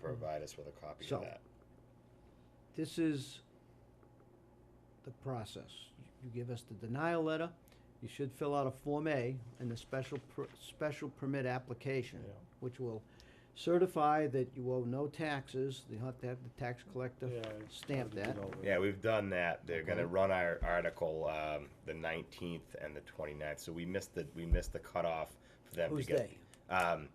provide us with a copy So- of that. this is the process. You give us the denial letter, you should fill out a Form A and the special, per- special permit application, Yeah. which will certify that you owe no taxes, you have to have the tax collector Yeah, it's stamp gotta be that. dealt with. Yeah, we've done that. They're gonna Okay. run our article, um, the nineteenth and the 29th. so we missed the, we missed the cutoff for them to Who's get. they? Um,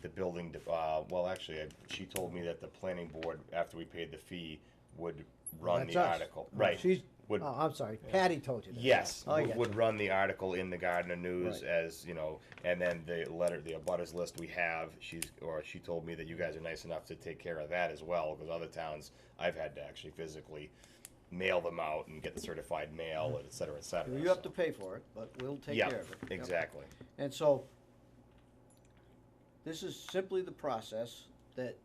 the building, de- uh, well, actually, I- she told me that the planning board, after we paid the fee, would run That's the us. article, Oh, right? She's, oh, Would, I'm sorry, Patty told you that. yes, Oh, would- yeah. would run the article in the Gardner News Right. as, you know, and then the letter, the abutters list we have, she's, or she told me that you guys are nice enough to take care of that as well, because other towns, I've had to actually physically mail them out and get the certified mail, and et cetera, et cetera. Mm-hmm. You have so- to pay for it, but we'll take Yeah, care of it. Yep. exactly. And so, this is simply the process that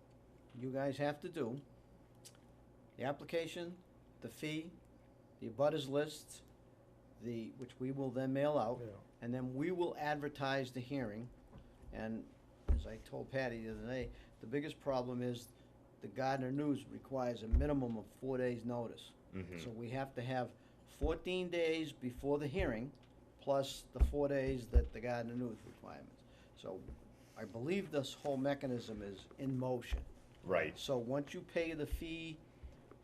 you guys have to do. The application, the fee, the abutters list, the, which we will then mail out. Yeah. And then we will advertise the hearing. And as I told Patty the other day, the biggest problem is the Gardner News requires a minimum of four days' notice. Mhm. So we have to have fourteen days before the hearing, plus the four days that the Gardner News requirements. So I believe this whole mechanism is in motion. Right. So once you pay the fee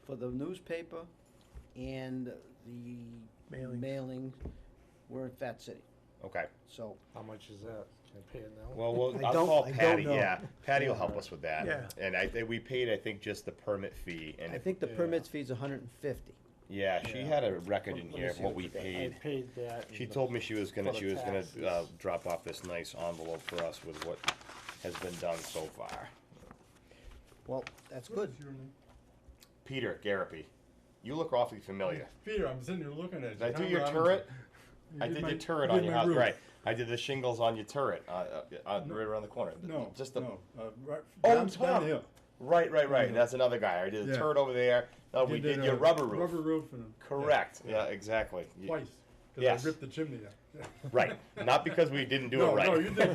for the newspaper and the Mailings. mailing, we're in Fat City. Okay. So How much is that? Can I pay it now? Well, well, I I'll don't- call I don't Patty. know. Yeah, Patty will help us with that. Yeah. And I think we paid, I think, just the permit fee. And I if- think the Yeah. permits fee's a hundred and fifty. yeah, she Yeah. had a record Let- in let me here of see what what we you got. I paid. paid that. She and the- told me she was gonna for the she was taxes. gonna uh, drop off this nice envelope for us with what has been done so far. Well, that's What good. is your name? Peter Garapi, you look awfully familiar. Peter, I'm sitting here looking at you. Did I do Tom your Robinson. turret? You I did my- your turret you on did your my house, roof. right? I did the shingles on your turret, uh, uh, uh, right around the corner. No, just the no, uh, right, Oh, down, Tom. down the hill. right, right, right. Mhm. That's another guy. I did the Yeah. turret over there. No, Oh, we did, a your rubber roof. Rubber roof and. a- Correct. Yeah, exactly. yeah, You- Twice, Yes. cause I ripped the chimney out. Right. Not because we didn't do it No, right. no, you did.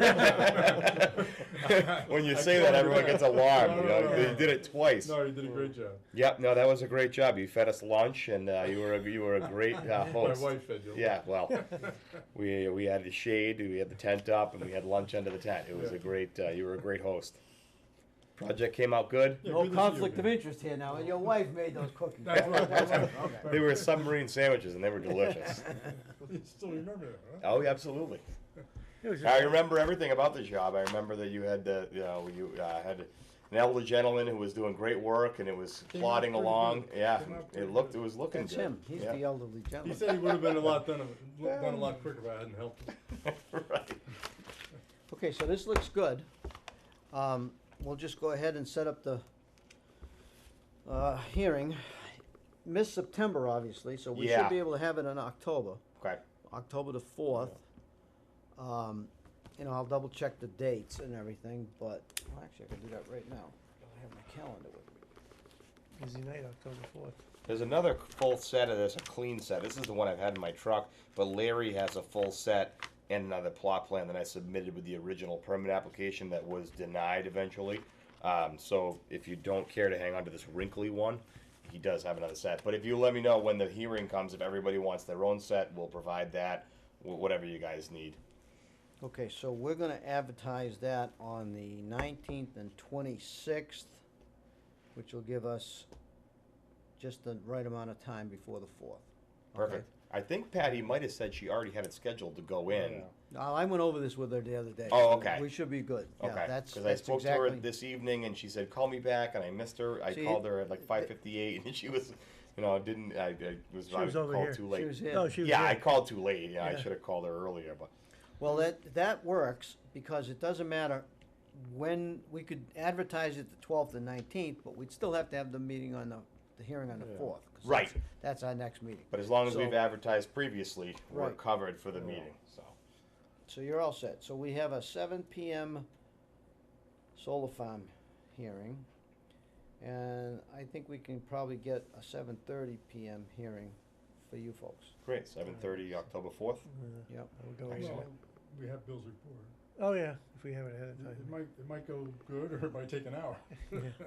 when you I say that, told you everyone that. gets alarmed. No, you, know, no, no, they no. did it twice. No, you did a great job. Yep. No, that was a great job. You fed us lunch, and uh, you were a, you were a great uh, My host. wife fed you. Yeah. Well, we we had the shade, we had the tent up, and we had lunch under the tent. It was a Yeah. great. Uh, you were a great host. Project came out good. Yeah, good to see you again. interest here now, and your wife made those cookies. That's right, that's right. Okay. They were submarine sandwiches, and they were delicious. You still remember that, huh? Oh, yeah, absolutely. It was I just, remember everything about the job. I remember that you had the, you know, you uh, had an elderly gentleman who was doing great work and it was Came out plodding pretty along. good. Yeah, Came out it pretty looked, it good. was looking That's good. him, he's the yeah. elderly He gentleman. said he would have been a lot done, done a lot quicker if I hadn't helped him. right. Okay, so this looks good. Um, we'll just go ahead and set up the, uh, hearing. Mid-September, obviously, so we should Yeah. be able to have it in October, Okay. October the fourth. Um, you know, I'll double check the dates and everything, but, well, actually, I can do that right now. I have my calendar with me. busy night, October fourth. There's another full set of this, a clean set. This is the one I've had in my truck, but Larry has a full set and another plot plan that I submitted with the original permit application that was denied eventually. Um, so if you don't care to hang on to this wrinkly one, he does have another set. But if you let me know when the hearing comes, if everybody wants their own set, we'll provide that, wh- whatever you guys need. Okay, so we're gonna advertise that on the nineteenth and twenty-sixth, which will give us just the right amount of time before the fourth. Perfect. I think Patty might have said she already had it scheduled to go in. Yeah. Now, I went over this with her the other day. Oh, so okay. We should be good. Okay. Yeah, that's, I that's spoke to exactly. her this evening, and she said, "Call me back," and I missed her. I See, called her at like th- 5:58, and she was, you know, didn't. I, I was, She I was over called here. too She late. was here. No, Oh, she was yeah, I here. called too late. Yeah, I Yeah. should have called her earlier, but Well, that, that works, because it doesn't matter when, we could advertise it the twelfth and nineteenth, but we'd still have to have the meeting on the, the hearing on the Yeah. fourth. Right. That's our next meeting. but as long as So- we've advertised previously, we're Right. covered for the Yeah. meeting. So So you're all set. So we have a seven PM solar farm hearing. And I think we can probably get a seven thirty PM hearing for you folks. great, 7:30, October 4th. Yep. I would go Excellent. with Well, We have Bill's report. that. Oh, yeah, if we have it ahead of It time. might, it might go good or it might take an hour. Yeah.